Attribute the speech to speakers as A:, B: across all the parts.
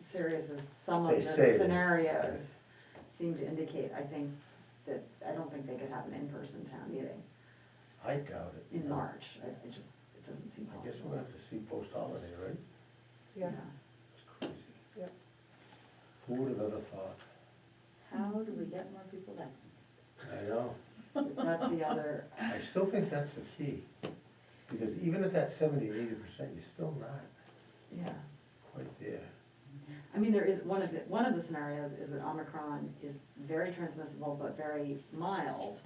A: serious as some
B: They
A: of the
B: say it is.
A: scenarios seem to indicate, I think that, I don't think they could have an in-person town meeting
B: I doubt it.
A: in March. I- It just, it doesn't seem
B: I guess
A: possible.
B: we'll have to see post-holiday, right?
C: Yeah,
B: It's crazy.
C: Yep.
B: Who would have ever thought?
A: How do we get more people vaccinated?
B: I know.
A: That's the other,
B: I still think that's the key, because even at that seventy, eighty percent, you're still not
A: yeah.
B: quite there.
A: I mean, there is, one of the, one of the scenarios is that Omicron is very transmissible but very mild.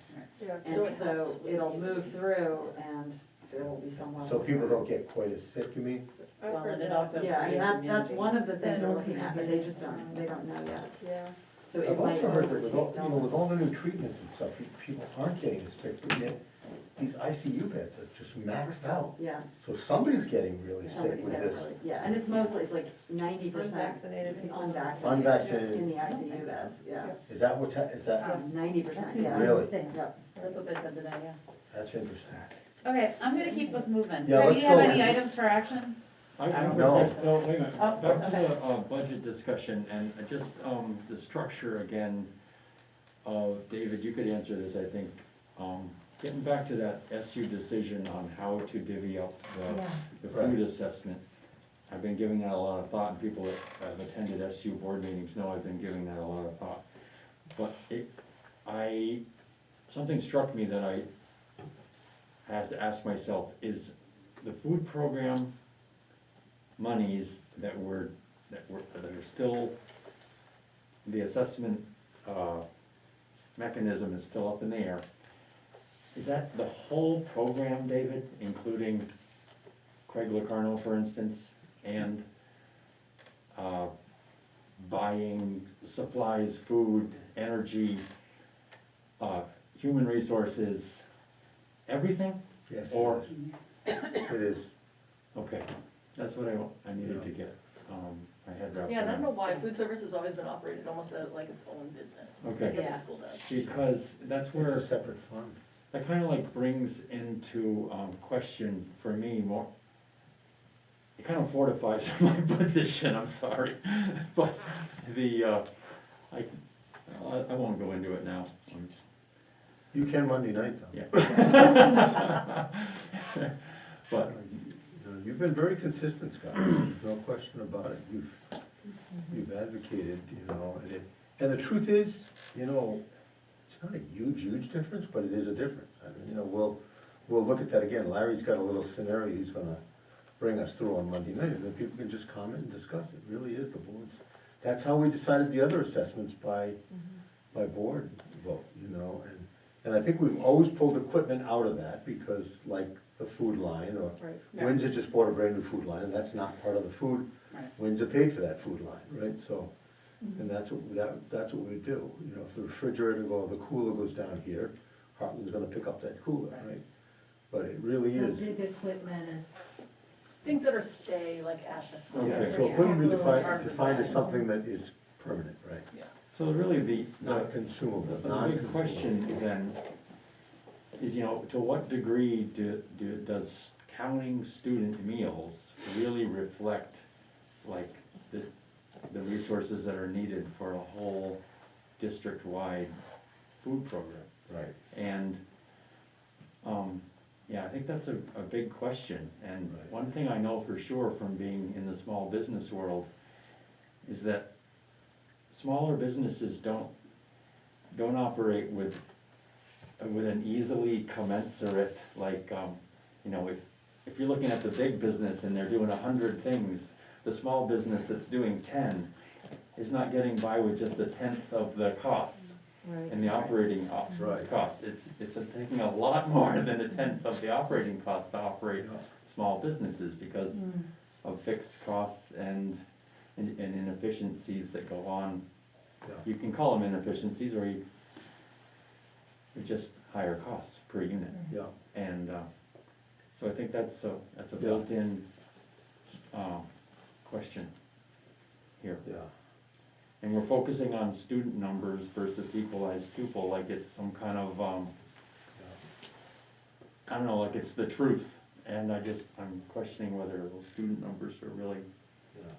C: yeah.
A: And so it'll move through and there will be someone.
B: So people don't get quite as sick, you mean?
C: I've
D: Well,
C: heard
D: and it
C: that.
D: also
A: Yeah, I mean, that, that's
D: creates
A: one of the things
C: immunity.
A: we're looking at, but they just don't, they don't know yet.
C: Yeah,
A: So it
B: I've
A: might
B: also heard that with all,
A: overtake
B: you know, with
A: Delta.
B: all the new treatments and stuff, pe- people aren't getting as sick, but yet these ICU beds are just maxed out.
A: Yeah.
B: So somebody's getting really sick
A: somebody's
B: with
A: got it
B: this
A: really- Yeah, and it's mostly, it's like ninety percent
C: Unvaccinated people.
A: unvaccinated in
B: unvaccinated.
A: the ICU beds, yeah.
B: Is that what's, hap- is that,
D: Um,
A: Ninety percent, yeah.
B: Really?
A: Yep.
D: That's what they said today, yeah.
B: that's interesting.
D: Okay, I'm gonna keep us moving.
B: Yeah,
D: Do
B: let's
D: you have
B: go.
D: any items for action?
E: I
D: I don't
E: don't
B: know.
E: know, no, wait a minute,
D: Oh,
E: back to
D: okay.
E: the, uh, budget discussion and uh, just, um, the structure again. Uh, David, you could answer this, I think, um, getting back to that SU decision on how to divvy up the, the food
B: Right.
E: assessment. I've been giving that a lot of thought, and people that have attended SU board meetings know I've been giving that a lot of thought. But it, I, something struck me that I had to ask myself, is the food program monies that were, that were, that are still, the assessment, uh, mechanism is still up in the air. Is that the whole program, David, including Craig Locarno, for instance, and, uh, buying supplies, food, energy, uh, human resources, everything?
B: Yes,
E: Or-
B: it is.
E: Okay, that's what I, wa- I needed to get, um, I had wrapped
F: Yeah, and I don't know
E: around.
F: why, food service has always been operated almost as- like its own business, like
E: Okay,
F: every
D: Yeah.
F: school does.
E: because that's
B: It's a
E: where,
B: separate fund.
E: that kind of like brings into, um, question for me more, it kind of fortifies my position, I'm sorry, but the, uh, I, I I won't go into it now. I'm-
B: You can Monday night, though.
E: But,
B: You know, You've been very consistent, Scott, there's no question about it, you've, you've advocated, you know, and it, and the truth is, you know, it's not a huge, huge difference, but it is a difference, I mean, you know, we'll, we'll look at that again, Larry's got a little scenario he's gonna bring us through on Monday night, and then people can just comment and discuss, it really is the board's, that's how we decided the other assessments by, by board vote, you know, and, and I think we've always pulled equipment out of that, because like the food line, or
C: right.
D: Yeah.
B: Windsor just bought a brand new food line, and that's not part of the food.
D: Right. Mm-hmm.
B: Windsor paid for that food line, right, so, and that's what, that, that's what we do, you know, if the refrigerator or the cooler goes down here, Heartland's gonna pick up that cooler,
D: Right.
B: right? But it really is,
D: equipment is.
F: Things that are stay like at the school.
B: yeah,
E: Okay.
B: so it wouldn't be
D: Yeah.
B: defined, defined as something that is permanent, right?
E: so really the, the,
B: Not consumable,
E: the
B: non-consumable.
E: big question then is, you know, to what degree do, do, does counting student meals really reflect like the, the resources that are needed for a whole district-wide food program?
B: Right,
E: And, um, yeah, I think that's a, a big question, and
B: Right.
E: one thing I know for sure from being in the small business world is that smaller businesses don't, don't operate with, with an easily commensurate, like, um, you know, if, if you're looking at the big business and they're doing a hundred things, the small business that's doing ten is not getting by with just a tenth of the costs and the operating op-
B: Right.
E: costs. It's, it's taking a lot more than a tenth of the operating cost to
B: yeah,
E: operate small businesses because of fixed costs and, and and inefficiencies that go on.
B: yeah,
E: You can call them inefficiencies or you, it's just higher costs per unit.
B: yeah.
E: And, uh, so I think that's a, that's a
B: Yeah.
E: built-in, um, question here.
B: yeah.
E: And we're focusing on student numbers versus equalized pupil, like it's some kind of, um, I don't know, like it's the truth. And I just, I'm questioning whether those student numbers are really
B: Yeah.